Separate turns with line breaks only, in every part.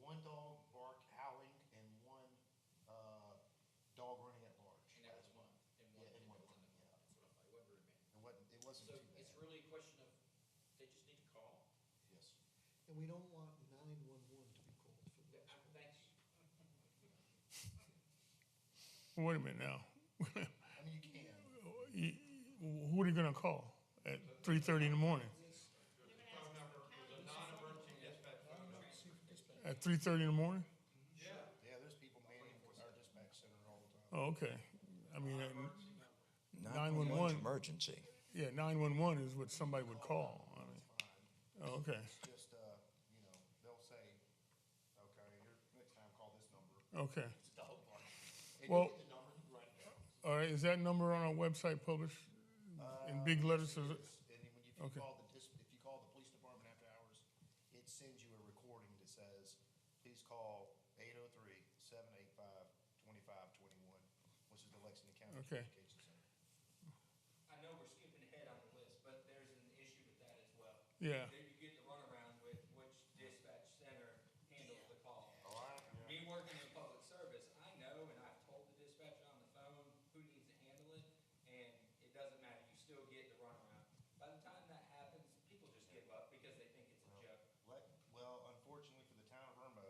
one dog bark howling and one, uh, dog running at large.
And that was one, and one,
Yeah,
and
and
one,
one,
that's what
yeah.
I'm, it wasn't very many.
It wasn't, it wasn't too
So it's
bad,
really a question of, they just need to call,
yes.
And we don't want nine-one-one to be called for
Th-
those
I-
calls.
thank you.
Wait a minute now.
I mean, you can,
You- Who are you gonna call at three thirty in the morning? At three thirty in the morning?
yeah, there's people manning our dispatch center all the time.
Oh, okay. I mean, uh,
Emergency.
yeah, nine one one is what somebody would call. I mean,
Fine.
oh, okay,
Just, uh, you know, they'll say, okay, your, next time call this number.
okay.
It's a dog park. And you
Well-
get the number, you write it down.
All right, is that number on our website published in big letters? Is it-
Um, And then when you, if you
Okay.
call the, dis- if you call the police department after hours, it sends you a recording that says, please call eight oh three, seven eight five, twenty-five, twenty-one, which is the Lexington County
Okay.
Communications Center.
I know we're skipping ahead on the list, but there's an issue with that as well.
Yeah.
There you get the runaround with which dispatch center handles the call.
All right?
Me working in public service, I know, and I've told the dispatcher on the phone who needs to handle it, and it doesn't matter, you still get the runaround. By the time that happens, people just give up because they think it's a joke.
Let, well, unfortunately for the town of Irmo,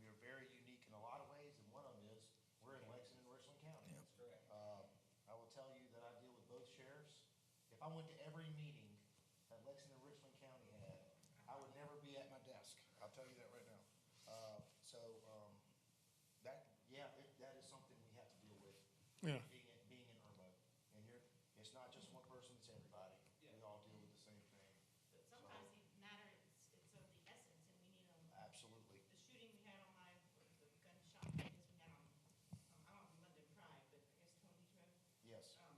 we are very unique in a lot of ways, and one of them is, we're in Lexington, Richland County.
That's correct.
Um, I will tell you that I deal with both sheriffs. If I went to every meeting that Lexington and Richland County had, I would never be at my desk. I'll tell you that right now. Uh, so, um, that, yeah, it, that is something we have to deal with.
Yeah.
Being, in- being in Irma, and you're, it's not just one person, it's everybody. We all deal with the same thing,
But sometimes the matter is, it's of the essence, and we need a,
absolutely.
the shooting we had on my, the gunshot, I guess we had on, um, I don't know, London Pride, but I guess Tony's Road,
Yes,
um,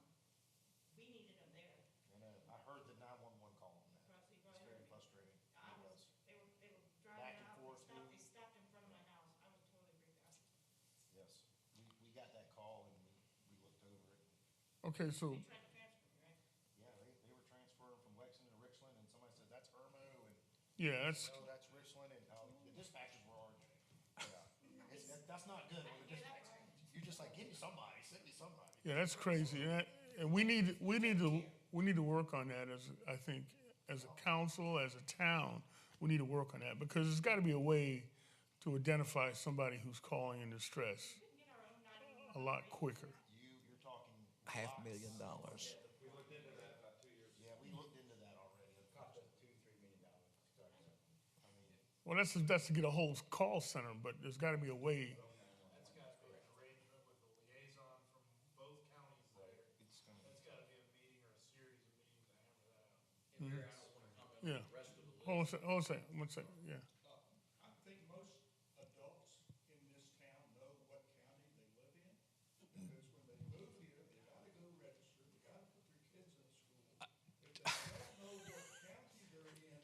we needed them there,
I know. I heard the nine-one-one call on that.
Rusty
It's
Road.
very frustrating.
I
It was,
was, they were, they were
Back and
driving out, they
forth,
stopped,
we-
they stopped in front of my house, I was totally freaked out.
yes. We, we got that call and we, we looked over it.
Okay, so
They tried to transfer me, right?
Yeah, they, they were transferred from Lexington to Richland, and somebody said, that's Irmo, and,
yeah, that's
no, that's Richland, and, oh, the dispatchers were arguing. Yeah, it's, that- that's not good when the dispatch, you're just like, give me somebody, send me somebody.
yeah, that's crazy. And, that, and we need we need to we need to work on that as I think as a council, as a town, we need to work on that because there's got to be a way to identify somebody who's calling in distress
Couldn't get our own nine
a lot quicker.
You, you're talking.
Half
lots.
million dollars.
Yeah, we looked into that already,
Cost us two, three million dollars.
I mean,
Well, that's that's to get a whole call center, but there's got to be a way.
That's gotta be an arrangement with a liaison from both counties there.
it's gonna,
That's gotta be a meeting or a series of meetings to hammer that out.
And Mayor, I don't wanna comment
Yeah.
on the rest of the list.
Hold on a second. Hold on a second. One second. Yeah.
I think most adults in this town know what county they live in, because when they move here, they gotta go register, they gotta put their kids in school. If they don't know what county they're in,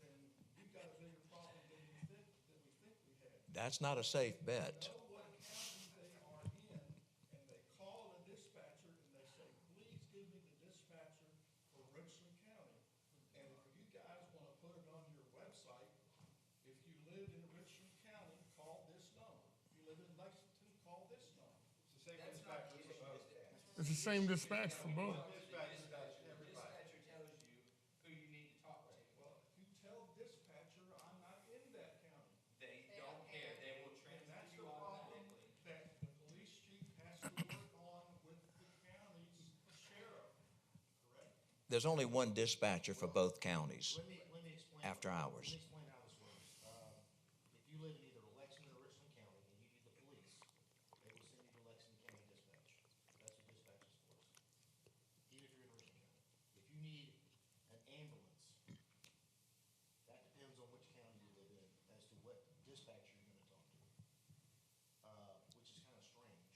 then we've got a bigger problem than we think, than we think we have.
That's not a safe bet.
Know what county they are in, and they call the dispatcher and they say, please give me the dispatcher for Richland County. And if you guys wanna put it on your website, if you live in Richland County, call this number. If you live in Lexington, call this number.
That's not the issue, is that-
It's the same dispatch for both.
Dispatcher tells you who you need to talk to.
Well, if you tell dispatcher, I'm not in that county,
They don't care, they will
and that's
transfer you
the problem
automatically.
that the police chief has to work on with the county's sheriff, correct?
There's only one dispatcher for both counties.
let me, let me explain.
After hours.
Let me explain how this works. Um, if you live in either Lexington or Richland County, and you need the police, they will send you to Lexington County Dispatch. That's what dispatch is for. Even if you're in Richland County. If you need an ambulance, that depends on which county you live in, as to what dispatcher you're gonna talk to. Uh, which is kinda strange,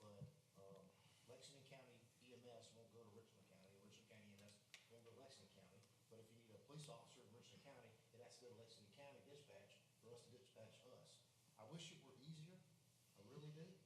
but, um, Lexington County EMS won't go to Richland County, Richland County EMS won't go to Lexington County. But if you need a police officer in Richland County, it has to go to Lexington County Dispatch for us to dispatch us. I wish it were easier, I really do, Um,